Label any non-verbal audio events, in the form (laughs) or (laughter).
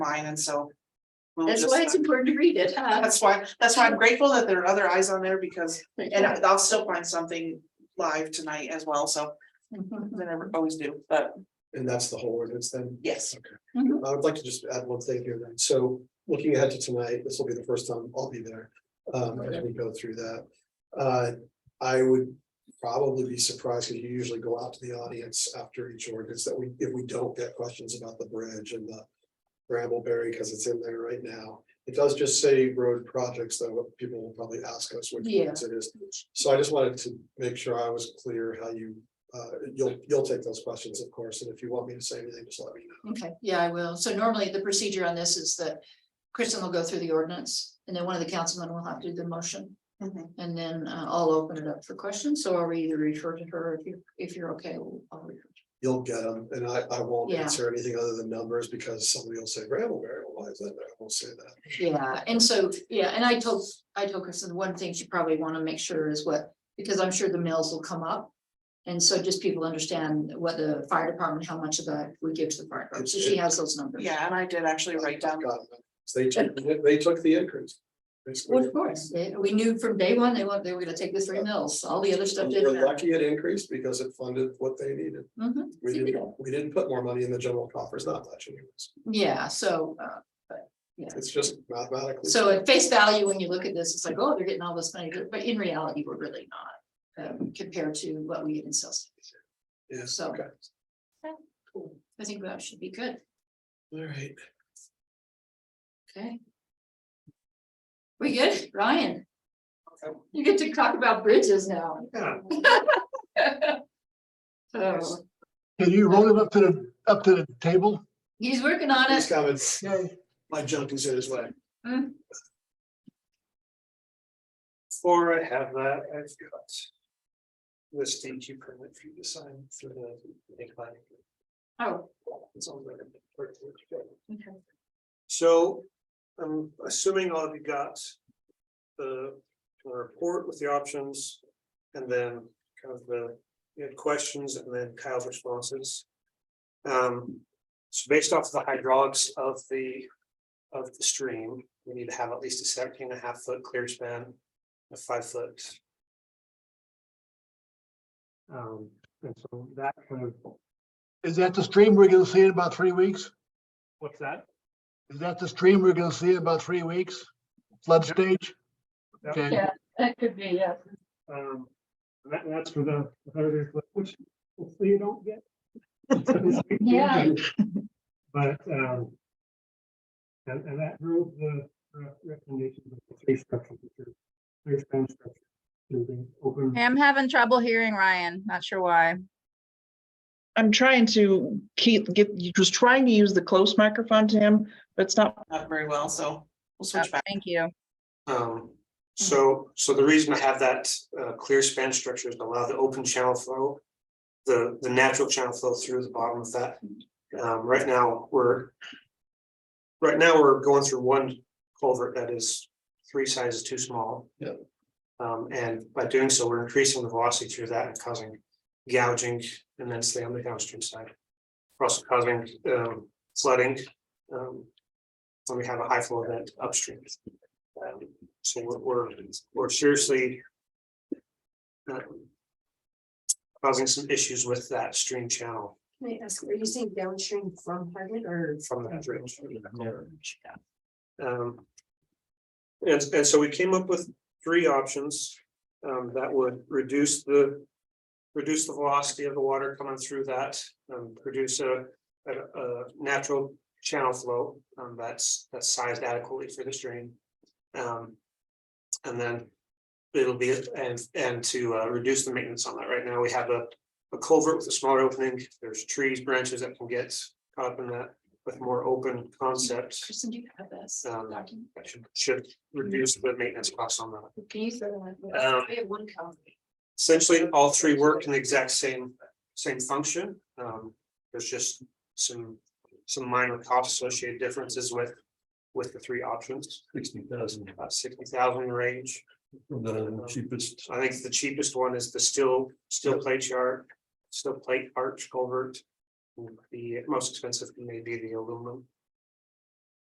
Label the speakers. Speaker 1: mine, and so. we'll
Speaker 2: That's
Speaker 1: just-
Speaker 2: why it's important to read it, (laughs) huh?
Speaker 1: That's why, that's why I'm grateful that there are other eyes on there because, and
Speaker 2: Yeah.
Speaker 1: I'll still find something live tonight as well, so
Speaker 2: Mhm.
Speaker 1: I never always do, but
Speaker 3: And that's the whole ordinance then?
Speaker 1: yes.
Speaker 2: Mhm.
Speaker 3: I would like to just add one thing here then. So looking ahead to tonight, this will be the first time I'll be there. Um, as we go through that. Uh, I would probably be surprised because you usually go out to the audience after each ordinance that we, if we don't get questions about the bridge and the Brambleberry, because it's in there right now. It does just say road projects, though, people will probably ask us which
Speaker 2: Yeah.
Speaker 3: ones it is. So I just wanted to make sure I was clear how you, uh, you'll, you'll take those questions, of course, and if you want me to say anything, just let me know.
Speaker 2: Okay, yeah, I will. So normally the procedure on this is that Kristen will go through the ordinance and then one of the councilmen will have to do the motion.
Speaker 1: Mhm.
Speaker 2: And then uh, I'll open it up for questions. So I'll either refer to her if you, if you're okay. we'll- I'll refer to-
Speaker 3: You'll get them, and I, I won't
Speaker 2: Yeah.
Speaker 3: answer anything other than numbers, because somebody will say, Brambleberry, why is that? there?" I won't say that.
Speaker 2: Yeah, Uh, and so, yeah, and I told, I told Kristen, one thing she probably want to make sure is what, because I'm sure the mills will come up. And so just people understand what the fire department, how much of that we give to the fire department. So she has those numbers.
Speaker 1: Yeah, and I did actually write down,
Speaker 3: Got it. So They took, they took the increase.
Speaker 2: Well, Of course, they- we knew from day one, they want, they were gonna take the three mills, all the other stuff
Speaker 3: We We're
Speaker 2: didn't matter.
Speaker 3: lucky it increased because it funded what they needed.
Speaker 2: Mhm,
Speaker 3: We didn't, we didn't put more money in the general coffers, not much anyways.
Speaker 2: yeah, so, uh,
Speaker 3: It's just mathematically.
Speaker 2: so at face value, when you look at this, it's like, oh, they're getting all this money, but- but in reality, we're really not. Um, compared to what we get in sales,
Speaker 3: Yeah,
Speaker 2: so.
Speaker 3: okay.
Speaker 2: I think that should be good,
Speaker 3: All right.
Speaker 2: okay? We good, Ryan? You get to talk about bridges (laughs) now. So,
Speaker 4: Can you roll him up to the, up to the table?
Speaker 2: he's working on
Speaker 3: These
Speaker 2: it,
Speaker 3: comments, my junk is in his way.
Speaker 2: Mm.
Speaker 3: Before I have that, I've got. This stage you permit for you to sign for the.
Speaker 2: oh,
Speaker 3: It's all right.
Speaker 2: okay.
Speaker 3: So I'm assuming all of you got the the report with the options and then kind of the, you had questions and then Kyle's responses. Um, so based off the hydraulics of the, of the stream, we need to have at least a 17 and a half foot clear span, a five foot. Um, and so that kind of,
Speaker 4: Is that the stream we're gonna see in about three weeks?
Speaker 3: what's that?
Speaker 4: Is that the stream we're gonna see in about three weeks? Flood stage?
Speaker 3: Yep.
Speaker 4: Okay,
Speaker 2: That could be, yeah.
Speaker 3: Um, and that, that's for the, which, hopefully you don't get.
Speaker 2: Yeah.
Speaker 3: But, um. And, and that drove the uh, recommendation of the three structure, which is three span structure. Moving open.
Speaker 5: Hey, I'm having trouble hearing Ryan. Not sure why.
Speaker 6: I'm trying to keep, get, was trying to use the close microphone to him, but it's not
Speaker 1: not very well, so we'll
Speaker 5: Oh,
Speaker 1: switch back.
Speaker 5: Thank you.
Speaker 7: Um, so, so the reason I have that uh clear span structure is to allow the open channel flow. The, the natural channel flow through the bottom of that. Um, right now, we're. Right now, we're going through one culvert that is three sizes too small.
Speaker 3: Yeah.
Speaker 7: Um, and by doing so, we're increasing the velocity through that and causing gouging immensely on the downstream side. We're Also causing um flooding. Um. When we have a high flow event upstream. Um, So we're, we're, we're seriously. um, Causing some issues with that stream channel
Speaker 8: Can I ask, are you saying downstream from Harvard or?
Speaker 7: from that bridge. Um, And, and so we came up with three options, um, that would reduce the. Reduce the velocity of the water coming through that, um, produce a, a, a natural channel flow, um, that's, that's sized adequately for the stream. Um, and then it'll be, and, and to, uh, reduce the maintenance on that. Right now, we have a, a culvert with a smaller opening. There's trees, branches that can get caught up in that with more open concept.
Speaker 2: Kristen, do you have this
Speaker 7: Um,
Speaker 2: document?
Speaker 7: that should, should reduce the maintenance costs on that.
Speaker 2: Can you throw that?
Speaker 7: Um,
Speaker 2: We have one copy.
Speaker 7: Essentially, all three work in the exact same, same function. Um, there's just some, some minor cost associated differences with, with the three options.
Speaker 3: Sixty thousand,
Speaker 7: About sixty thousand range.
Speaker 3: the cheapest.
Speaker 7: I think the cheapest one is the steel, steel plate yard, steel plate arch culvert. The most expensive may be the aluminum.